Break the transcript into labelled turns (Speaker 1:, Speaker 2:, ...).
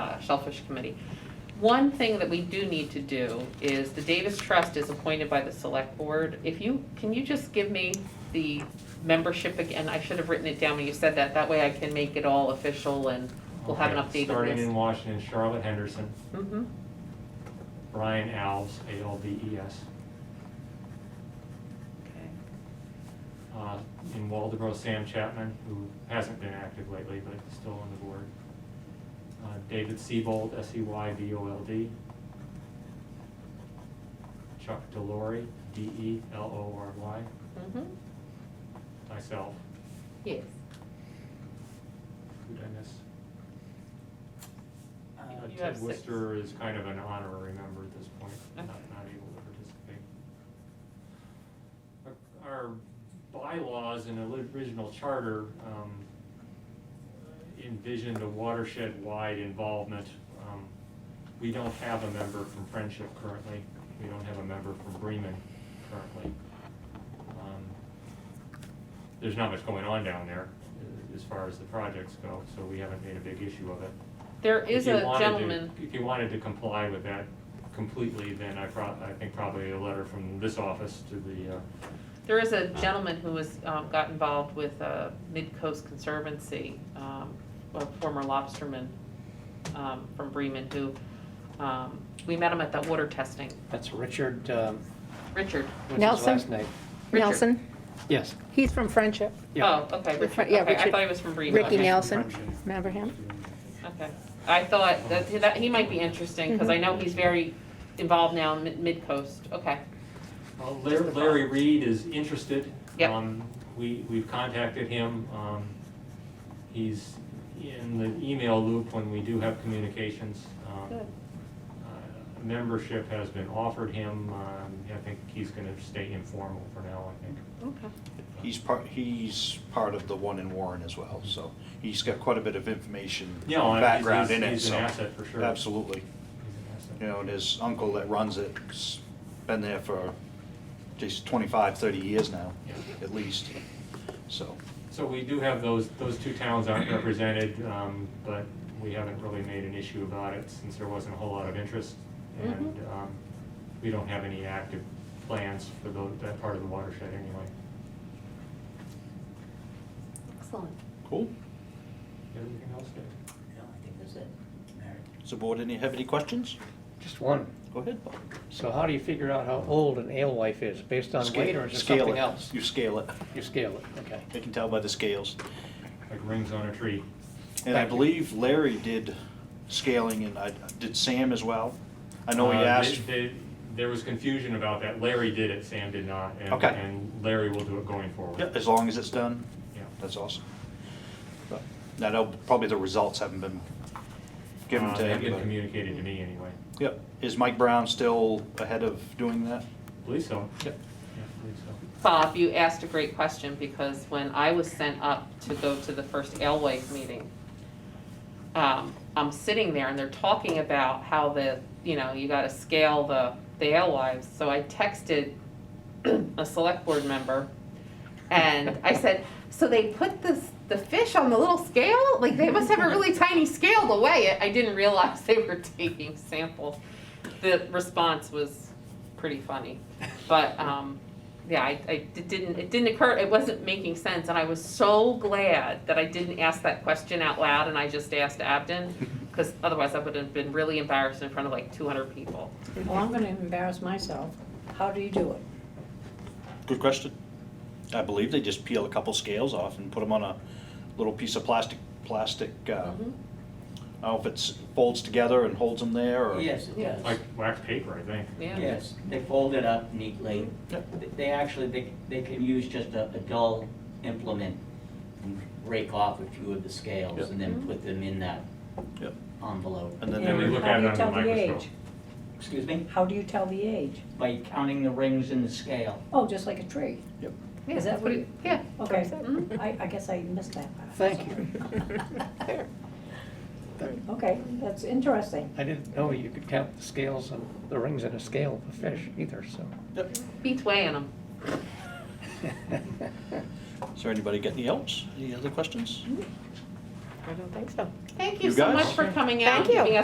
Speaker 1: uh, Shellfish Committee. One thing that we do need to do is the Davis Trust is appointed by the Select Board. If you, can you just give me the membership again? I should have written it down when you said that. That way I can make it all official and we'll have an
Speaker 2: Okay,
Speaker 1: updated
Speaker 2: Starting
Speaker 1: list.
Speaker 2: in Washington, Charlotte Henderson,
Speaker 1: Mhm.
Speaker 2: Brian Alves, A-L-V-E-S.
Speaker 1: Okay.
Speaker 2: Uh, In Waldeboro, Sam Chapman, who hasn't been active lately, but is still on the board. Uh, David E Sebold, S-E-Y-B-O-L-D. Chuck Delory, E D-E-L-O-R-Y,
Speaker 1: Mhm.
Speaker 2: myself,
Speaker 1: Yes.
Speaker 2: who did I miss?
Speaker 3: Uh,
Speaker 2: Uh,
Speaker 1: You have
Speaker 2: Ted
Speaker 1: six.
Speaker 2: Worcester is kind of an honorary member at this point, not,
Speaker 1: Okay.
Speaker 2: not able to participate. Our- Our bylaws and the original charter um, envisioned a watershed-wide involvement. Um, We don't have a member from Friendship currently, we don't have a member from Bremen currently. Um, There's not much going on down there uh, as far as the projects go, so we haven't made a big issue of it.
Speaker 1: There is
Speaker 2: If you
Speaker 1: a
Speaker 2: wanted to-
Speaker 1: gentleman,
Speaker 2: If you wanted to comply with that completely, then I prob, I think probably a letter from this office to the, uh,
Speaker 1: there is a gentleman who was, um, got involved with, uh, Mid-Coast Conservancy, um, a former lobsterman, um, from Bremen who, um, we met him at that water testing.
Speaker 3: That's Richard, um,
Speaker 1: Richard,
Speaker 3: what's his
Speaker 4: Nelson?
Speaker 3: last name?
Speaker 1: Richard.
Speaker 4: Nelson,
Speaker 3: Yes.
Speaker 4: he's from Friendship.
Speaker 3: Yeah.
Speaker 1: oh, okay,
Speaker 4: That's
Speaker 1: Richard,
Speaker 4: right, yeah,
Speaker 1: okay, I
Speaker 4: Richard.
Speaker 1: thought he was from Bremen,
Speaker 4: Ricky
Speaker 1: okay,
Speaker 4: Nelson, remember him?
Speaker 1: okay. I thought that, that, he might be interesting, cause I
Speaker 4: Mm-hmm.
Speaker 1: know he's very involved now in Mid- Mid-Coast, okay.
Speaker 2: Well,
Speaker 1: Just the
Speaker 2: Larry- Larry Reed is interested.
Speaker 1: Yep.
Speaker 2: Um, We, we've contacted him. Um, He's in the email loop when we do have communications. Um,
Speaker 1: Good.
Speaker 2: uh, Membership has been offered him. Um, I think he's gonna stay informal for now, I think.
Speaker 1: Okay.
Speaker 5: He's part, he's part of the one in Warren as well, so he's got quite a bit of information,
Speaker 2: Yeah, well, he's-
Speaker 5: background
Speaker 2: he's-
Speaker 5: in it,
Speaker 2: he's an
Speaker 5: so-
Speaker 2: asset for sure.
Speaker 5: Absolutely.
Speaker 2: He's an asset.
Speaker 5: You know, and his uncle that runs it's been there for just 25, 30 years now,
Speaker 2: Yeah.
Speaker 5: at least, so.
Speaker 2: So we do have those, those two towns aren't represented, um, but we haven't really made an issue about it since there wasn't a whole lot of interest. And, um, we don't have any active plans for tho- that part of the watershed anyway.
Speaker 1: Excellent.
Speaker 5: Cool.
Speaker 2: Everything else, Dave?
Speaker 3: No, I think that's it.
Speaker 5: Does the board any, have any questions?
Speaker 3: Just one.
Speaker 5: Go ahead, Bob.
Speaker 3: So how do you figure out how old an alewife is? Based on weight or is it
Speaker 5: Scale
Speaker 3: something
Speaker 5: it.
Speaker 3: else?
Speaker 5: You scale it.
Speaker 3: You scale it, okay.
Speaker 5: They can tell by the scales.
Speaker 2: like rings on a tree.
Speaker 5: And I
Speaker 3: Thank you.
Speaker 5: believe Larry did scaling, and I, did Sam as well? I know he
Speaker 2: Uh, they-
Speaker 5: asked.
Speaker 2: they- There was confusion about that. Larry did it, Sam did not. and-
Speaker 5: Okay.
Speaker 2: And Larry will do it going forward.
Speaker 5: Yeah, as long as it's done,
Speaker 2: Yeah.
Speaker 5: that's awesome. But I know probably the results haven't been given
Speaker 2: Uh,
Speaker 5: to
Speaker 2: They've been
Speaker 5: anybody.
Speaker 2: communicated to me anyway.
Speaker 5: Yep, is Mike Brown still ahead of doing that?
Speaker 2: Believe so.
Speaker 5: Yep.
Speaker 2: Yeah, believe so.
Speaker 1: Bob, you asked a great question because when I was sent up to go to the first Alewife meeting, um, I'm sitting there and they're talking about how the, you know, you gotta scale the, the Alewives. So I texted a select board member and I said, so they put this, the fish on the little scale? Like they must have a really tiny scale to weigh it. I didn't realize they were taking samples. The response was pretty funny, but, um, yeah, I, I, it didn't, it didn't occur, it wasn't making sense, and I was so glad that I didn't ask that question out loud and I just asked Abden, because otherwise I would have been really embarrassed in front of like two hundred people.
Speaker 6: Well, I'm gonna embarrass myself. How do you do it?
Speaker 5: Good question. I believe they just peel a couple scales off and put them on a little piece of plastic, plastic, uh,
Speaker 1: Mhm.
Speaker 5: I don't know if it's folds together and holds them there, or?
Speaker 7: Yes, it
Speaker 2: Like
Speaker 7: does.
Speaker 2: wax paper, I think.
Speaker 1: Yeah,
Speaker 7: Yes, they fold it up neatly. They- They actually, they, they can use just a, a dull implement and rake off a few of the
Speaker 5: Yep.
Speaker 7: scales and then put them in that
Speaker 5: Yep.
Speaker 7: envelope.
Speaker 5: And then
Speaker 2: Then we
Speaker 5: they,
Speaker 2: look
Speaker 6: How
Speaker 2: at
Speaker 6: do
Speaker 2: it
Speaker 6: you
Speaker 2: under the
Speaker 6: tell the
Speaker 2: microscope.
Speaker 6: age?
Speaker 7: Excuse me?
Speaker 6: How do you tell the age?
Speaker 7: By counting the rings in the scale.
Speaker 6: Oh, just like a tree.
Speaker 1: Yeah,
Speaker 6: Is
Speaker 1: that's what
Speaker 6: that what Oh,
Speaker 1: it,
Speaker 6: it-
Speaker 1: yeah.
Speaker 6: Okay, Mm-hmm.
Speaker 1: Mhm.
Speaker 6: I, I guess I missed that part.
Speaker 3: Thank you.
Speaker 4: There.
Speaker 6: Okay, that's interesting.
Speaker 3: I didn't know you could count the scales and the rings in a scale of a fish either, so.
Speaker 1: Beats weighing them.
Speaker 5: is there anybody got any else? Any other questions?
Speaker 1: I don't think so. Thank you
Speaker 5: You
Speaker 1: so
Speaker 5: guys?
Speaker 1: much for coming out,
Speaker 4: Thank you.
Speaker 1: giving us